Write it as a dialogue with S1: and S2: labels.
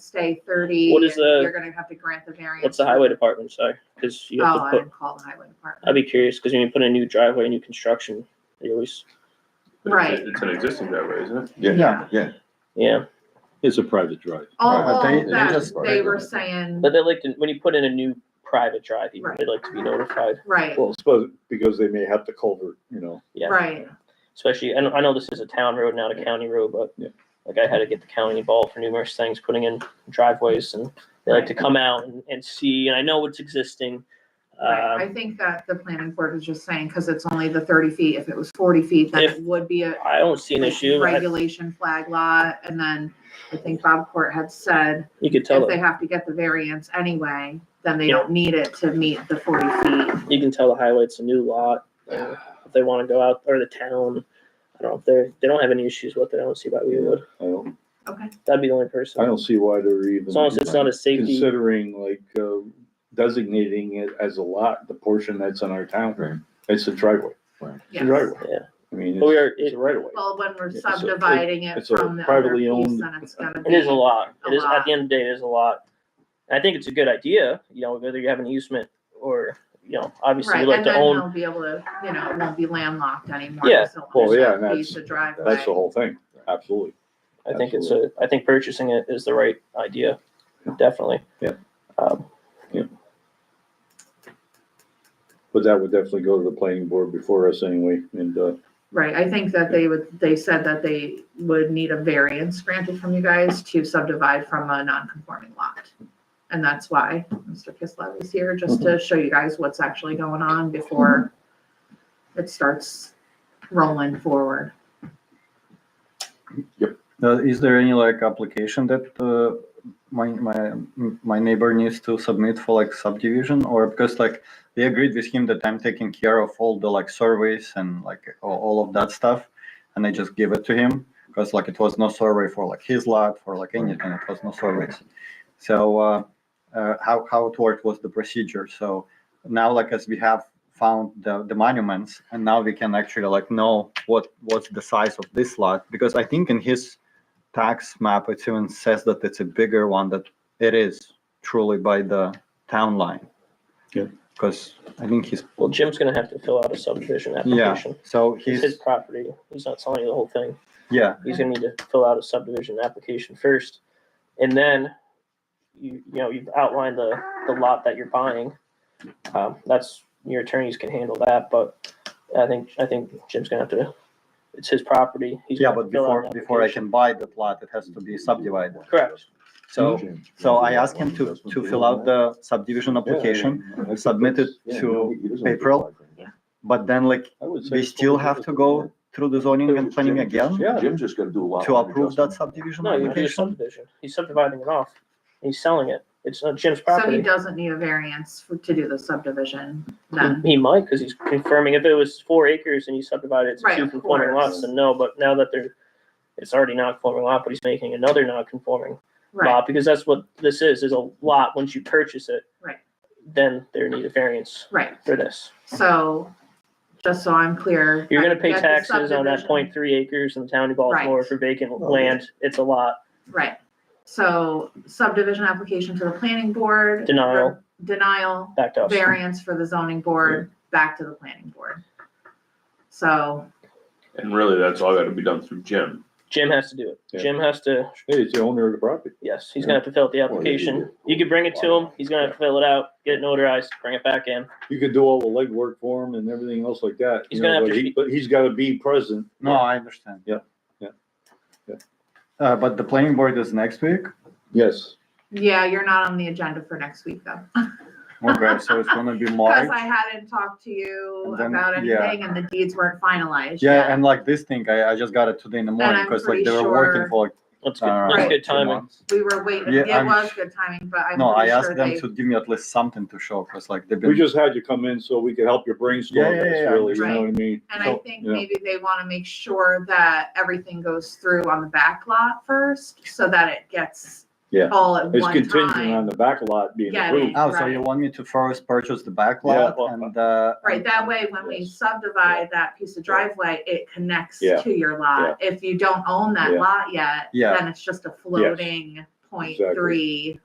S1: stay thirty.
S2: What is
S1: and
S2: the-
S1: You're gonna have to grant the variance.
S2: What's the highway department say? Because you have
S1: Oh,
S2: to
S1: I
S2: put.
S1: didn't call the highway department.
S2: I'd be curious because when you put in a new driveway, new construction, you always
S3: But it's a-
S1: Right.
S3: It's an existing driveway, isn't it?
S4: Yeah.
S5: Yeah.
S2: yeah.
S6: It's a private drive.
S1: All,
S4: Well,
S1: all
S4: they-
S1: of
S4: they
S1: that,
S4: just-
S1: they were saying,
S2: But they like to when you put in a new private drive, even,
S1: Right.
S2: they'd like to be notified.
S1: right,
S6: Well, suppose, because they may have the culvert, you know.
S2: yeah.
S1: right,
S2: Especially, I know, I know this is a town road, not a county road, but
S6: Yeah.
S2: like I had to get the county involved for numerous things, putting in driveways, and they like to come out and, and see. And I know it's existing.
S1: right.
S2: Um,
S1: I think that the planning board is just saying, cause it's only the thirty feet, if it was forty feet, then
S2: If-
S1: it would be a
S2: I don't see an
S1: like,
S2: issue. I-
S1: Regulation flag lot, and then I think Bob Court had said,
S2: you could tell
S1: if they
S2: them.
S1: have to get the variance anyway, then they
S2: Yeah.
S1: don't need it to meet the forty feet.
S2: You can tell the highway it's a new lot. uh, If they want to go out or the town, I don't know if they they don't have any issues with it. I don't see why we would.
S6: I don't,
S1: Okay,
S2: That'd be the only
S6: I
S2: person.
S6: don't see why they're even.
S2: As long as it's not a safety.
S6: Considering like uh, designating it as a lot, the portion that's in our
S5: Right.
S6: town, it's a driveway. It's a
S1: yes.
S6: driveway.
S2: Oh, Yeah.
S6: I mean,
S2: But we
S6: it's
S2: are, it,
S6: it's a right of way.
S1: Well, when we're
S6: It's a-
S1: subdividing it
S6: it's a
S1: from the other
S6: privately
S1: piece,
S6: owned-
S1: then it's gonna be.
S2: it is a lot.
S1: A
S2: It is, at
S1: lot.
S2: the end of the day, it is a lot. And I think it's a good idea, you know, whether you have an easement or, you know, obviously
S1: Right,
S2: we like
S1: and
S2: to
S1: then
S2: own.
S1: they'll be able to, you know, it won't be landlocked anymore.
S2: Yeah.
S1: so it'll
S6: Well, yeah,
S1: just
S6: and
S1: be
S6: that's,
S1: the driveway.
S6: that's the whole thing. Absolutely.
S2: I think it's a, I think purchasing it is the right idea, definitely.
S6: Yeah.
S2: Um,
S6: But that would definitely go to the planning board before us anyway. And, uh,
S1: Right, I think that they would, they said that they would need a variance granted from you guys to subdivide from a non-conforming lot. And that's why Mr. Kislev is here, just to show you guys what's actually going on before it starts rolling forward.
S4: Uh, is there any like application that uh, my my my neighbor needs to submit for like subdivision or because like they agreed with him that I'm taking care of all the like surveys and like all, all of that stuff, and I just gave it to him because like it was no survey for like his lot for like anything it was no surveys, so uh, uh, how how it worked was the procedure. So now like as we have found the, the monuments and now we can actually like know what what's the size of this lot because i think in his tax map it even says that it's a bigger one that it is truly by the town line
S6: Yeah.
S4: because i think he's
S2: Well, Jim's gonna have to fill out a subdivision
S4: yeah
S2: application.
S4: so
S2: It's his
S4: he's
S2: property. He's not selling you the whole thing.
S4: yeah
S2: he's gonna need to fill out a subdivision application first. And then you, you know, you've outlined the, the lot that you're buying. Um, that's, your attorneys can handle that, but I think, I think Jim's gonna have to, it's his property. He's
S4: yeah
S2: gonna
S4: but
S2: fill out
S4: before
S2: an
S4: before i
S2: application.
S4: can buy the plot it has to be subdivided
S2: Correct.
S4: so so i asked him to to fill out the subdivision application submit it to April. but then like
S6: I would say.
S4: we still have to go through the zoning and planning
S5: Jim just-
S4: again
S6: Yeah.
S5: Jim's just gonna do a lot.
S4: to
S5: line
S4: approve that
S5: adjustment.
S4: subdivision
S2: No, you do a
S4: application?
S2: subdivision. He's subdividing it off. He's selling it. It's not Jim's
S1: So he
S2: property.
S1: doesn't need a variance for- to do the subdivision then.
S2: He- He might, cause he's confirming if it was four acres and he subdivided it to
S1: Right,
S2: two
S1: of
S2: conforming
S1: course.
S2: lots, then no, but now that they're, it's already non-conforming lot, but he's making another non-conforming
S1: Right,
S2: lot, because that's what this is, is a lot, once you purchase it.
S1: Right.
S2: Then there need a variance
S1: right.
S2: for this.
S1: So just so I'm clear.
S2: You're
S1: I
S2: gonna pay
S1: get the
S2: taxes on that
S1: subdivision.
S2: point three acres in the town of Baltimore
S1: Right.
S2: for vacant land, it's a lot,
S1: Right. So subdivision application to the planning board.
S2: Denial.
S1: Denial,
S2: back to us.
S1: variance for the zoning board, back to the planning board. So,
S3: And really, that's all gotta be done through Jim.
S2: Jim has to do it,
S6: Yeah.
S2: Jim has to,
S6: Hey, it's the owner of the property.
S2: yes, he's gonna have to fill out the
S5: Well, you
S2: application,
S5: do.
S2: you could bring it to him, he's gonna have to fill it out, get it notarized, bring it back in.
S6: You could do all the legwork for him and everything else like that.
S2: He's
S6: you
S2: gonna
S6: know,
S2: have
S6: but
S2: to
S6: he-
S2: be-
S6: But he's gotta be present.
S4: No, I understand.
S6: Yeah, yeah, yeah.
S4: Uh, but the planning board is next week.
S6: Yes.
S1: yeah, you're not on the agenda for next week though.
S4: Okay, so it's gonna be
S1: Because
S4: March.
S1: I hadn't talked to you
S4: And then-
S1: about
S4: yeah.
S1: anything and the deeds weren't finalized yet.
S4: Yeah, and like this thing, I, I just got it today in the morning
S1: I'm
S4: because
S1: pretty
S4: like they were
S1: sure-
S4: working for like,
S2: That's
S4: I
S2: good,
S4: don't know,
S2: that's
S1: Right.
S2: good
S4: two
S2: timing,
S4: months.
S1: We were waiting,
S4: Yeah,
S1: it
S4: I'm-
S1: was good timing, but I'm
S4: No, I
S1: pretty
S4: asked
S1: sure
S4: them
S1: they,
S4: to give me at least something to show because like they've
S6: We
S4: been,
S6: just had you come in so we could help your brainstorm
S4: Yeah, yeah,
S6: this
S4: yeah,
S6: really, you
S1: right.
S6: know what I mean?
S1: and I
S4: so,
S1: think
S6: yeah.
S1: maybe they want to make sure that everything goes through on the back lot first, so that it gets
S6: Yeah.
S1: all at
S6: It's
S1: one
S6: contingent
S1: time.
S6: on the back lot being
S1: Yeah,
S6: approved.
S4: oh, so
S1: Right.
S4: you want me to first purchase the
S6: Yeah,
S4: backlot
S6: well,
S4: and, uh.
S1: Right,
S4: and-
S1: that way, when we
S6: Yes.
S1: subdivide that piece of driveway, it connects
S6: Yeah.
S1: to your lot. If you don't own that
S6: Yeah.
S1: lot yet,
S4: Yeah.
S1: then it's just a floating point three